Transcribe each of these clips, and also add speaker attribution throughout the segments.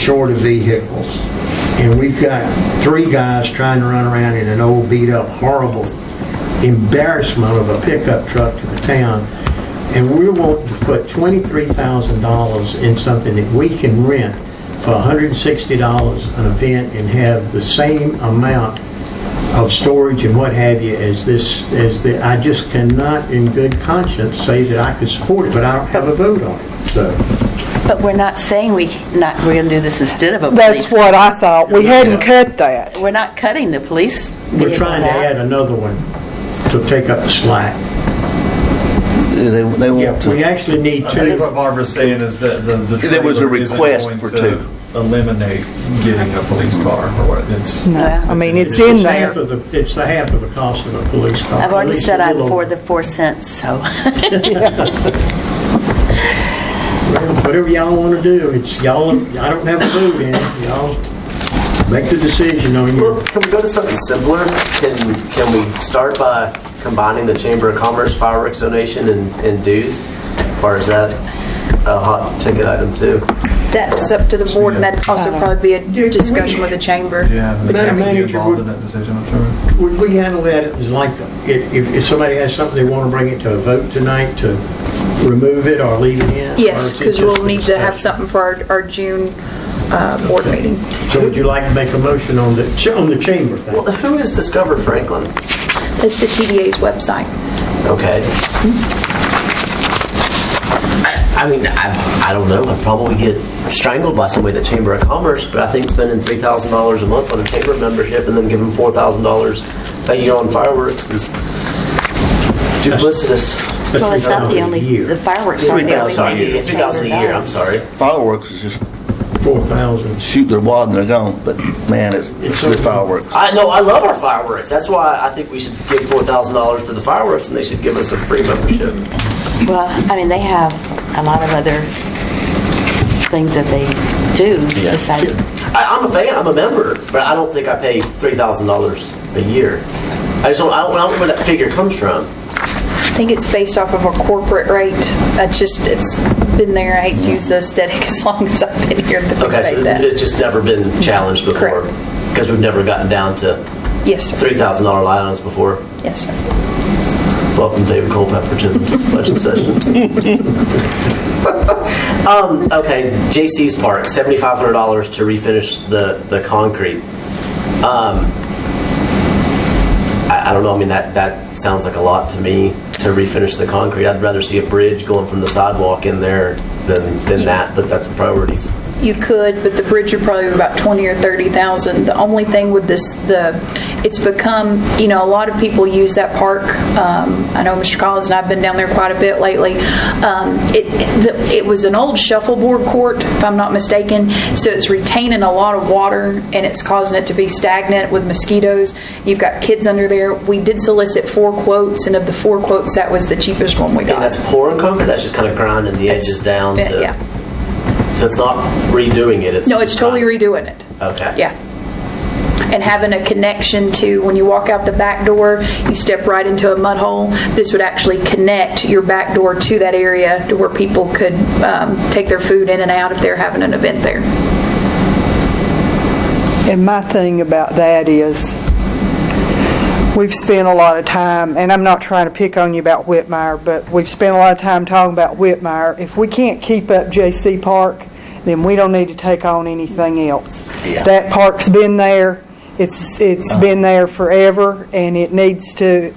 Speaker 1: short of vehicles. And we've got three guys trying to run around in an old beat-up, horrible embarrassment of a pickup truck to the town. And we want to put $23,000 in something that we can rent for $160 an event and have the same amount of storage and what have you as this, as the, I just cannot in good conscience say that I could support it, but I don't have a vote on it, so.
Speaker 2: But we're not saying we not, we're going to do this instead of a
Speaker 3: That's
Speaker 2: police.
Speaker 3: what I thought. We hadn't cut that.
Speaker 2: We're not cutting the police
Speaker 1: We're
Speaker 2: vehicles
Speaker 1: trying to
Speaker 2: out.
Speaker 1: add another one to take up the slack.
Speaker 4: They, they
Speaker 1: Yeah,
Speaker 4: want
Speaker 1: we
Speaker 4: to,
Speaker 1: actually need
Speaker 5: I think what
Speaker 1: two.
Speaker 5: Barbara's saying is that the, the
Speaker 4: There was a
Speaker 5: trailer isn't
Speaker 4: request
Speaker 5: going
Speaker 4: for
Speaker 5: to
Speaker 4: two.
Speaker 5: Eliminate getting a police car or what, it's.
Speaker 3: No, I mean, it's in
Speaker 1: It's half
Speaker 3: there.
Speaker 1: of the, it's the half of the cost of a police car.
Speaker 2: I've
Speaker 1: at
Speaker 2: already
Speaker 1: least
Speaker 2: said
Speaker 1: a
Speaker 2: I'm
Speaker 1: little
Speaker 2: for
Speaker 1: over.
Speaker 2: the four cents, so.
Speaker 1: Whatever y'all want to do, it's y'all, I don't have a vote in it, y'all make the decision on
Speaker 6: Well,
Speaker 1: your,
Speaker 6: can we go to something simpler? Can we, can we start by combining the Chamber of Commerce fireworks donation and, and dues? Or is that a hot ticket item too?
Speaker 7: That's up to the board, and that'd also probably be a discussion with the chamber.
Speaker 5: Yeah, they
Speaker 1: Madam
Speaker 5: have to be
Speaker 1: Manager,
Speaker 5: involved
Speaker 1: would-
Speaker 5: in that decision, I'm sure.
Speaker 1: would we handle that as like, if, if- if somebody has something they want to bring it to a vote tonight to remove it or leave it in? or
Speaker 7: Yes,
Speaker 1: is it
Speaker 7: because
Speaker 1: just
Speaker 7: we'll
Speaker 1: for
Speaker 7: need to have
Speaker 1: discussion?
Speaker 7: something for our, our June uh, board meeting.
Speaker 1: So would you like to make a motion on the, ch- on the chamber thing?
Speaker 6: Well, who has discovered Franklin?
Speaker 7: That's the TDA's website.
Speaker 6: Okay. I I mean, I, I don't know. I'd probably get strangled by somebody at the Chamber of Commerce, but I think spending three thousand dollars a month on a chamber membership and then giving four thousand dollars a year on fireworks is duplicitous.
Speaker 1: That's
Speaker 2: Well, it's not the
Speaker 1: $3,000 a
Speaker 2: only,
Speaker 1: year.
Speaker 2: the fireworks
Speaker 6: Three
Speaker 2: aren't the only
Speaker 6: thousand
Speaker 2: thing
Speaker 6: a
Speaker 2: you
Speaker 6: year.
Speaker 2: get
Speaker 6: Three thousand a year. I'm
Speaker 2: $3,000.
Speaker 6: sorry.
Speaker 4: fireworks is just
Speaker 1: Four thousand.
Speaker 4: shoot their wad and they're gone, but man, it's, it's good fireworks.
Speaker 6: I no, I love our fireworks. That's why I think we should give four thousand dollars for the fireworks, and they should give us a free membership.
Speaker 2: Well, I mean, they have a lot of other things that they do besides,
Speaker 6: I, I'm a fan. I'm a member, but I don't think I pay three thousand dollars a year. I just don't. I don't, I don't know where that figure comes from.
Speaker 7: I think it's based off of a corporate rate. That's just, it's been there. I hate to use the aesthetic as long as I've been here, but
Speaker 6: Okay,
Speaker 7: they
Speaker 6: so
Speaker 7: pay that.
Speaker 6: it's just never been challenged before
Speaker 7: Correct.
Speaker 6: because we've never gotten down to
Speaker 7: Yes, sir.
Speaker 6: three thousand dollar line items before.
Speaker 7: Yes, sir.
Speaker 6: Welcome, David Culpepper, to the budget session. um, okay, JC's Park, seventy-five hundred dollars to refinish the the concrete. Um, I, I don't know. I mean, that that sounds like a lot to me to refinish the concrete. I'd rather see a bridge going from the sidewalk in there than than that. But that's priorities.
Speaker 7: You could, but the bridge would probably be about twenty or thirty thousand. The only thing with this, the, it's become, you know, a lot of people use that park. Um, I know Mr. Collins and I've been down there quite a bit lately. Um, it, the- it was an old shuffleboard court, if I'm not mistaken, so it's retaining a lot of water and it's causing it to be stagnant with mosquitoes. You've got kids under there. We did solicit four quotes, and of the four quotes, that was the cheapest one we
Speaker 6: And
Speaker 7: got.
Speaker 6: that's pouring concrete. That's just kind of grinding the
Speaker 7: It's
Speaker 6: edges down.
Speaker 7: been-
Speaker 6: To,
Speaker 7: yeah.
Speaker 6: So it's not redoing it. It's
Speaker 7: No, it's
Speaker 6: just
Speaker 7: totally
Speaker 6: grinding.
Speaker 7: redoing it.
Speaker 6: Okay.
Speaker 7: Yeah. And having a connection to, when you walk out the back door, you step right into a mud hole. This would actually connect your back door to that area to where people could um, take their food in and out if they're having an event there.
Speaker 3: And my thing about that is, we've spent a lot of time, and I'm not trying to pick on you about Whitmire, but we've spent a lot of time talking about Whitmire. If we can't keep up JC Park, then we don't need to take on anything else.
Speaker 4: Yeah.
Speaker 3: That park's been there, it's, it's been there forever, and it needs to,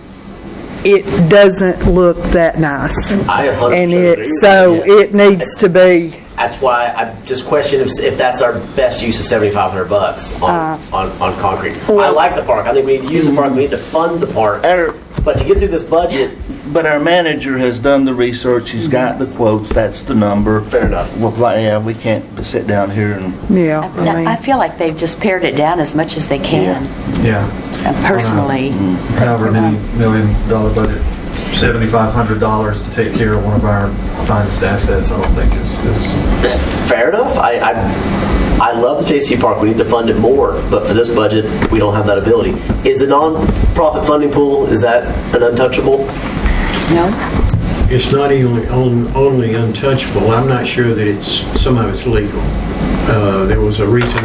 Speaker 3: it doesn't look that nice.
Speaker 6: I 100%
Speaker 3: And
Speaker 6: agree
Speaker 3: it,
Speaker 6: with
Speaker 3: so
Speaker 6: you.
Speaker 3: it needs to be,
Speaker 6: That's why I just question if, if that's our best use of seventy five hundred bucks on,
Speaker 3: Uh,
Speaker 6: on, on concrete. I like the park. I think we need to use the park. We need to fund the park.
Speaker 4: Our-
Speaker 6: But to get through this budget,
Speaker 4: But our manager has done the research, he's got the quotes, that's the number.
Speaker 6: Fair enough.
Speaker 4: Well, like, yeah, we can't sit down here and,
Speaker 3: yeah. I mean-
Speaker 2: I feel like they've just pared it down as much as they can,
Speaker 5: Yeah.
Speaker 2: uh, personally.
Speaker 5: However many million dollar budget, seventy-five hundred dollars to take care of one of our finest assets, I don't think is, is.
Speaker 6: fair enough. I, I I love the JC Park. We need to fund it more, but for this budget, we don't have that ability. Is the nonprofit funding pool is that an untouchable?
Speaker 2: No?
Speaker 1: It's not only, on- only untouchable, I'm not sure that it's, somehow it's legal. Uh, There was a recent